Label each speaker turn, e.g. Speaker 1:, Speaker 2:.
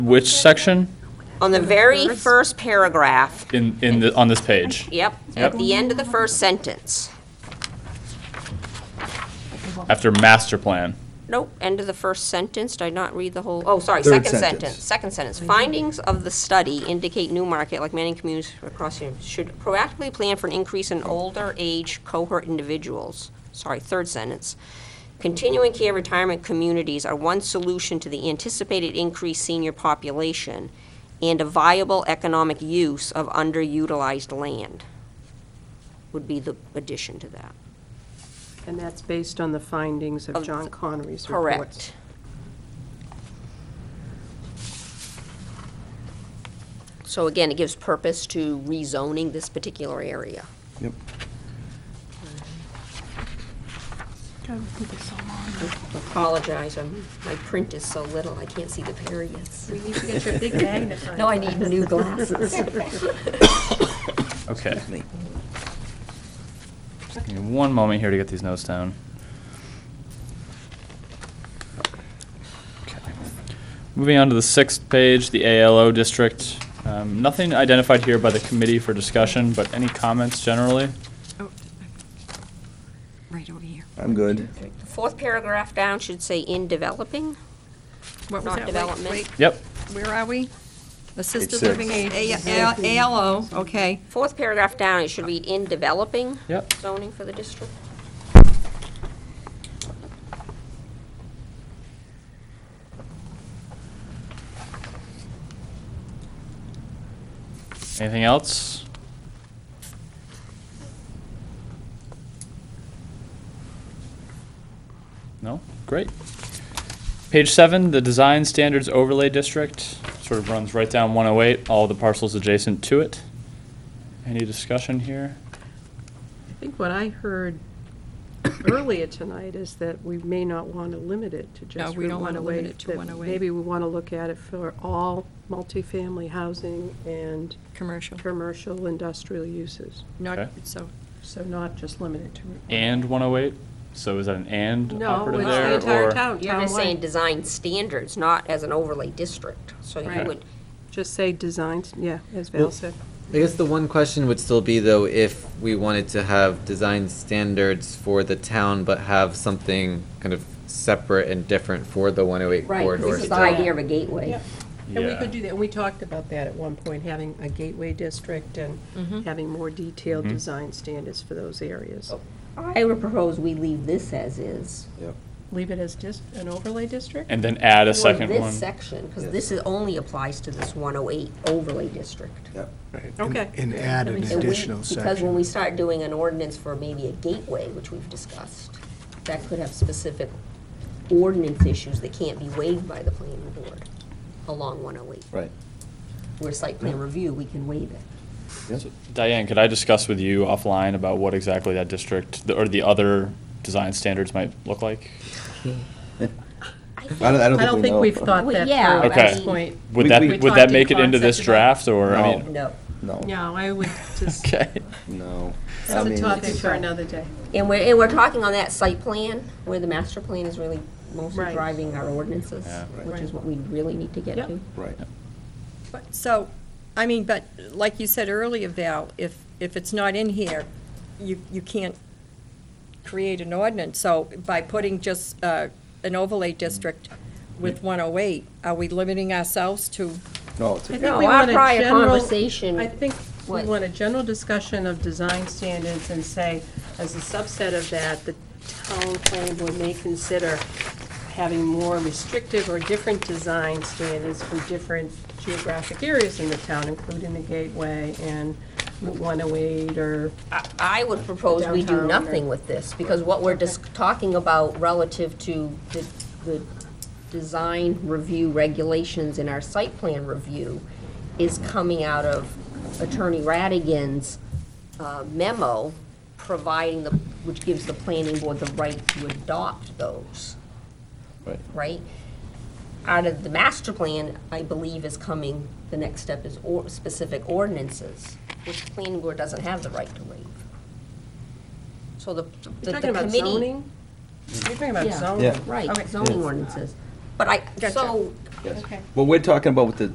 Speaker 1: Which section
Speaker 2: On the very first paragraph,
Speaker 1: in, in, the- on this page?
Speaker 2: yep,
Speaker 1: Yep.
Speaker 2: at the end of the first sentence.
Speaker 1: After master plan?
Speaker 2: Nope, end of the first sentence, did I not read the whole, oh, sorry,
Speaker 3: Third
Speaker 2: second sentence.
Speaker 3: sentence.
Speaker 2: Second sentence, findings of the study indicate Newmarket, like many communities across here, should proactively plan for an increase in older age cohort individuals. Sorry, third sentence. Continuing care retirement communities are one solution to the anticipated increased senior population and a viable economic use of underutilized land would be the addition to that.
Speaker 4: And that's based on the findings of
Speaker 2: Of
Speaker 4: John Connery's report.
Speaker 2: Correct. So again, it gives purpose to rezoning this particular area.
Speaker 3: Yep.
Speaker 2: Apologize, I'm- my print is so little, I can't see the periods.
Speaker 5: You should get your big magnifying.
Speaker 2: No, I need new glasses.
Speaker 1: Okay. Just give me one moment here to get these notes down. Okay. Moving on to the sixth page, the ALO district. Um, Nothing identified here by the committee for discussion, but any comments generally?
Speaker 5: Right over here.
Speaker 3: I'm good.
Speaker 2: Fourth paragraph down should say in developing.
Speaker 5: What was
Speaker 2: Not
Speaker 5: that? Wait,
Speaker 2: development.
Speaker 5: wait,
Speaker 1: Yep,
Speaker 5: Where are we? Assisted
Speaker 3: six.
Speaker 5: living, A- A- ALO, okay.
Speaker 2: Fourth paragraph down, it should read in developing
Speaker 1: yep.
Speaker 2: zoning for the district.
Speaker 1: Anything else? No? Great. Page seven, the Design Standards Overlay District, sort of runs right down 108, all the parcels adjacent to it. Any discussion here?
Speaker 4: I think what I heard earlier tonight is that we may not want to limit it to just
Speaker 5: we
Speaker 4: Route
Speaker 5: don't wanna
Speaker 4: 108,
Speaker 5: limit it to
Speaker 4: that
Speaker 5: 108.
Speaker 4: Maybe we want to look at it for all multifamily housing and
Speaker 5: Commercial.
Speaker 4: commercial industrial uses.
Speaker 5: Not,
Speaker 1: Okay.
Speaker 5: so,
Speaker 4: So not just limited to. Route 108.
Speaker 1: And 108? So is that an and
Speaker 4: No,
Speaker 1: operative
Speaker 4: it's
Speaker 1: there?
Speaker 4: the entire
Speaker 1: or-
Speaker 4: town,
Speaker 2: You're just saying
Speaker 4: townwide.
Speaker 2: design standards, not as an overlay district. So you
Speaker 4: Right.
Speaker 2: would,
Speaker 4: Just say designs, yeah, as Val
Speaker 6: Well-
Speaker 4: said.
Speaker 6: I guess the one question would still be though, if we wanted to have design standards for the town, but have something kind of separate and different for the one oh eight
Speaker 4: Right,
Speaker 6: corridor.
Speaker 2: this is the
Speaker 4: still-
Speaker 2: idea of a gateway.
Speaker 4: And we
Speaker 1: Yeah.
Speaker 4: could do that, and we talked about that at one point, having a gateway district and having more detailed
Speaker 1: Mm-hmm.
Speaker 4: design standards for those areas.
Speaker 2: I would propose we leave this as is.
Speaker 4: Leave it as just an overlay district?
Speaker 1: And then add a
Speaker 2: for
Speaker 1: second
Speaker 2: this
Speaker 1: one?
Speaker 2: section, because this is, only applies to this 108 overlay district.
Speaker 7: Right, and-
Speaker 4: Okay.
Speaker 7: And add an
Speaker 2: And we-
Speaker 7: additional
Speaker 2: Because when
Speaker 7: section.
Speaker 2: we start doing an ordinance for maybe a gateway, which we've discussed, that could have specific ordinance issues that can't be waived by the planning board along 108.
Speaker 3: Right.
Speaker 2: Where site plan review, we can waive it.
Speaker 1: Diane, could I discuss with you offline about what exactly that district, the- or the other design standards might look like?
Speaker 3: I don't, I don't
Speaker 4: I don't
Speaker 3: think we
Speaker 4: think
Speaker 3: know.
Speaker 4: we've thought
Speaker 2: Well,
Speaker 4: that through
Speaker 2: yeah,
Speaker 4: at
Speaker 1: I
Speaker 4: this
Speaker 1: mean-
Speaker 4: point.
Speaker 1: Would
Speaker 3: We-
Speaker 1: that,
Speaker 3: we
Speaker 1: would that
Speaker 4: talked
Speaker 1: make
Speaker 4: in
Speaker 1: it into this
Speaker 4: concept about-
Speaker 1: draft, or, I
Speaker 3: No.
Speaker 1: mean,
Speaker 2: No.
Speaker 3: No,
Speaker 4: No, I would just,
Speaker 1: okay,
Speaker 3: no. I
Speaker 4: that's a
Speaker 3: mean,
Speaker 4: topic for another day.
Speaker 2: And we're, and we're talking on that site plan, where the master plan is really mostly
Speaker 4: Right.
Speaker 2: driving our ordinances,
Speaker 1: Yeah.
Speaker 2: which is what we really need to get
Speaker 4: Yep.
Speaker 2: to.
Speaker 3: Right.
Speaker 5: but- so, I mean, but like you said earlier, Val, if, if it's not in here, you, you can't create an ordinance. So by putting just uh, an overlay district
Speaker 1: Mm.
Speaker 5: with 108, are we limiting ourselves to
Speaker 3: No, it's
Speaker 4: I
Speaker 3: okay.
Speaker 4: think
Speaker 2: No,
Speaker 4: we
Speaker 2: our
Speaker 4: want a
Speaker 2: prior
Speaker 4: general-
Speaker 2: conversation
Speaker 4: I think we
Speaker 2: was-
Speaker 4: want a general discussion of design standards and say, as a subset of that, the town planning board may consider having more restrictive or different design standards for different geographic areas in the town, including the gateway and Route 108 or,
Speaker 2: I- I would propose we do
Speaker 4: Downtown or-
Speaker 2: nothing with this, because what we're dis- talking about relative to the, the design review regulations in our site plan review is coming out of Attorney Radigan's uh, memo, providing the, which gives the planning board the right to adopt those.
Speaker 3: Right.
Speaker 2: Right? Out of the master plan, I believe is coming, the next step is or, specific ordinances, which the planning board doesn't have the right to waive. So the, the the
Speaker 4: you're
Speaker 2: committee.
Speaker 4: talking about zoning? You're talking about
Speaker 2: Yeah.
Speaker 4: zoning?
Speaker 3: Yeah.
Speaker 2: Right,
Speaker 4: Okay.
Speaker 2: zoning ordinances. But I,
Speaker 5: Gotcha.
Speaker 2: so
Speaker 3: Yes.
Speaker 4: Okay.
Speaker 3: What we're talking about with the